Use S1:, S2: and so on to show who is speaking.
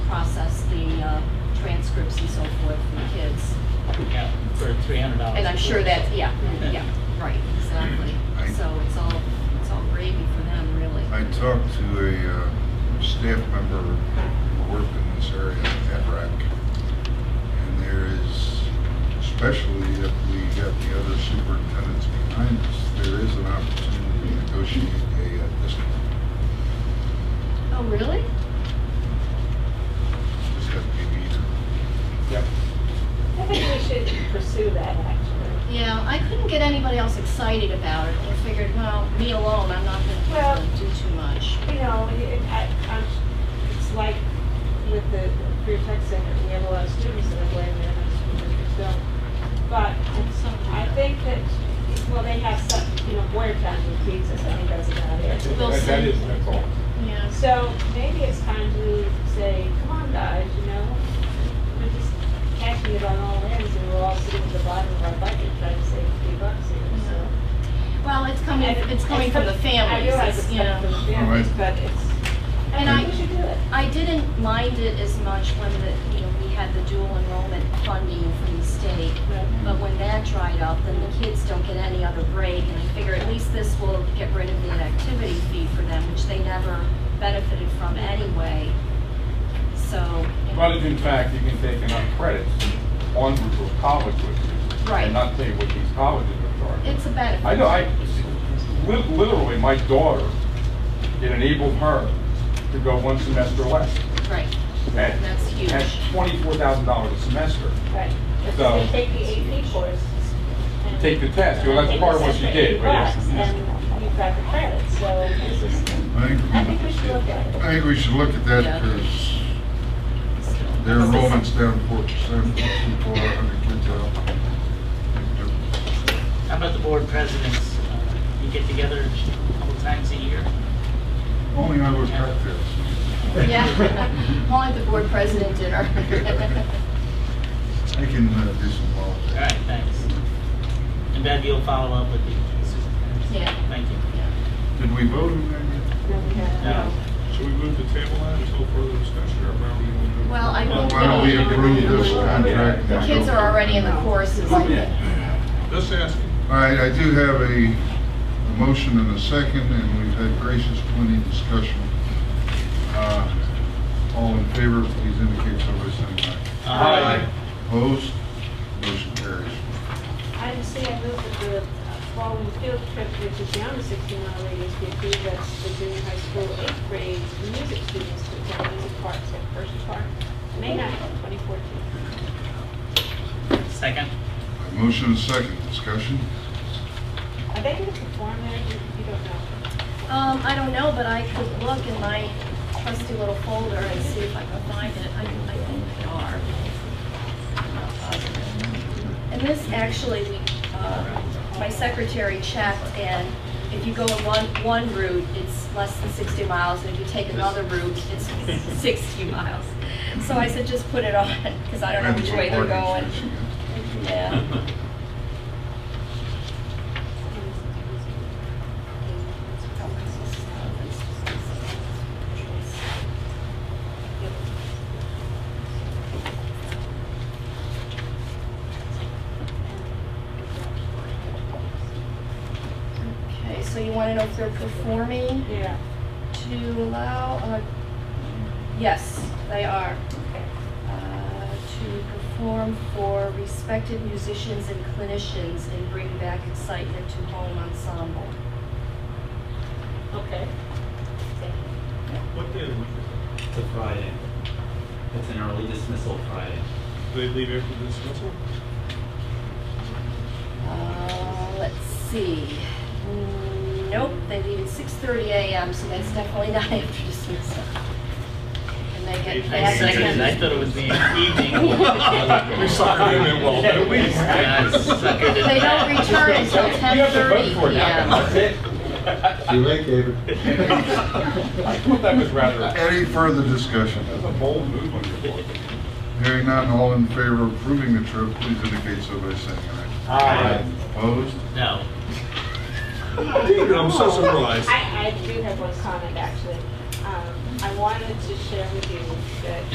S1: uh, and so forth for kids.
S2: Yeah, for three hundred dollars.
S1: And I'm sure that's, yeah, yeah, right, exactly. So it's all, it's all gravy for them, really.
S3: I talked to a uh, staff member who worked in this area at RAC, and there is, especially if we got the other superintendents behind us, there is an opportunity to negotiate a uh, discount.
S1: Oh, really?
S3: Just have to be either.
S4: Yep.
S5: I think we should pursue that, actually.
S1: Yeah, I couldn't get anybody else excited about it. I figured, well, me alone, I'm not
S5: Well-
S1: gonna do too much.
S5: You know, it, I, I'm, it's like with the career tech center, we have a lot of students that are going there, and school districts don't. But I think that, well, they have some, you know, Boyertown who feeds us, I think that's about it.
S4: That-
S1: We'll
S4: That
S1: see.
S4: is, that's all.
S1: Yeah.
S5: So maybe it's time to say, come on, guys, you know, we're just catching it on all ends, and we're all sitting at the bottom of our budget trying to save three bucks here, so.
S1: Well, it's coming,
S5: And
S1: it's coming from the
S5: I
S1: families,
S5: realize
S1: it's,
S5: it's
S1: you
S5: coming from
S1: know.
S5: the families, but it's,
S1: And
S5: I
S1: I,
S5: think we should do it.
S1: I didn't mind it as much when the, you know, we had the dual enrollment funding from the state. But when that dried up, then the kids don't get any other break, and I figure at least this will get rid of the activity fee for them, which they never benefited from anyway. So. you know,
S4: But if in fact, you can take enough credits on group of college courses.
S1: Right.
S4: And not pay what these colleges are charging.
S1: It's a benefit.
S4: I know, I, li- literally, my daughter, it enabled her to go one semester less.
S1: Right,
S4: And
S1: That's huge.
S4: That's twenty-four thousand dollars a semester.
S5: Right. If
S4: So-
S5: they take the AP course. and-
S4: Take the test, well,
S5: and
S4: that's
S5: take
S4: part
S5: the
S4: of what
S5: test
S4: she
S5: for
S4: did,
S5: eight
S4: but yes.
S5: bucks, And you've got the credit, so this is, I think we should look at it.
S3: I think we should look at
S1: Yeah.
S3: that because their enrollment's down four percent, people are under kids out.
S2: How about the board presidents? Uh, You get together a couple times a year?
S3: Only I was cocktails.
S1: yeah. Only the board president dinner.
S3: I can uh, do some
S2: All
S3: volunteering.
S2: right, thanks. And Bev, you'll follow up with the superintendents?
S1: Yeah.
S2: Thank you.
S3: Did we vote on that
S2: No.
S6: Should we move to table that until further discussion, or how are we going to do it?
S1: Well, I
S3: yet?
S1: think.
S3: Why don't we approve this contract?
S1: The kids are already in the courses, I think.
S6: Just asking.
S3: All right, I do have a, a motion and a second, and we've had gracious plenty of discussion. Uh, All in favor, please indicate so by saying
S2: Uh,
S3: aye.
S2: Aye.
S3: Opposed? Motion carries.
S5: Item C, I move that the uh, following field trip, which is beyond the sixteen mile radius, be approved as the junior high school eighth grade music students to attend music parks at First Park, May ninth, twenty fourteen.
S2: Second?
S3: A Motion and a second, discussion?
S5: Are they gonna perform there? You you don't know.
S1: Um, I don't know, but I could look in my trusty little folder and see if I can find it. I, I think they are. I'm not positive. And this actually, we, uh, my secretary checked, and if you go in one, one route, it's less than sixty miles, and if you take another route, it's sixty miles. So I said, just put it on, because I don't know which way they're going.
S3: Parking space again.
S1: Yeah. Okay, so you want to know if they're performing
S5: Yeah.
S1: to allow, uh, yes, they are
S5: Okay.
S1: uh, to perform for respected musicians and clinicians and bring back excitement to home ensemble.
S5: Okay.
S6: What day of the week is
S7: It's a Friday. It's an early dismissal Friday.
S6: it? Do they leave after dismissal?
S1: Uh, let's see. Mm, Nope, they leave at six thirty AM, so that's definitely not after dismissal. And they get
S2: I
S1: back.
S2: seconded, I thought it was the evening.
S6: We suckered him in well, didn't we?
S2: Yeah, I suckered in
S1: They don't
S2: that.
S1: return until
S4: You have to vote
S1: 10:30
S4: for it now,
S1: PM.
S4: that's it.
S3: Too late, David.
S4: I thought that was rather,
S3: Any further discussion?
S4: that's a bold move on your part.
S3: Hearing none, all in favor of approving the trip, please indicate so by saying aye.
S4: Aye.
S3: Opposed?
S2: No.
S6: David, I'm
S5: Oh,
S6: so surprised.
S5: I, I do have one comment, actually. Um, I wanted to share with you that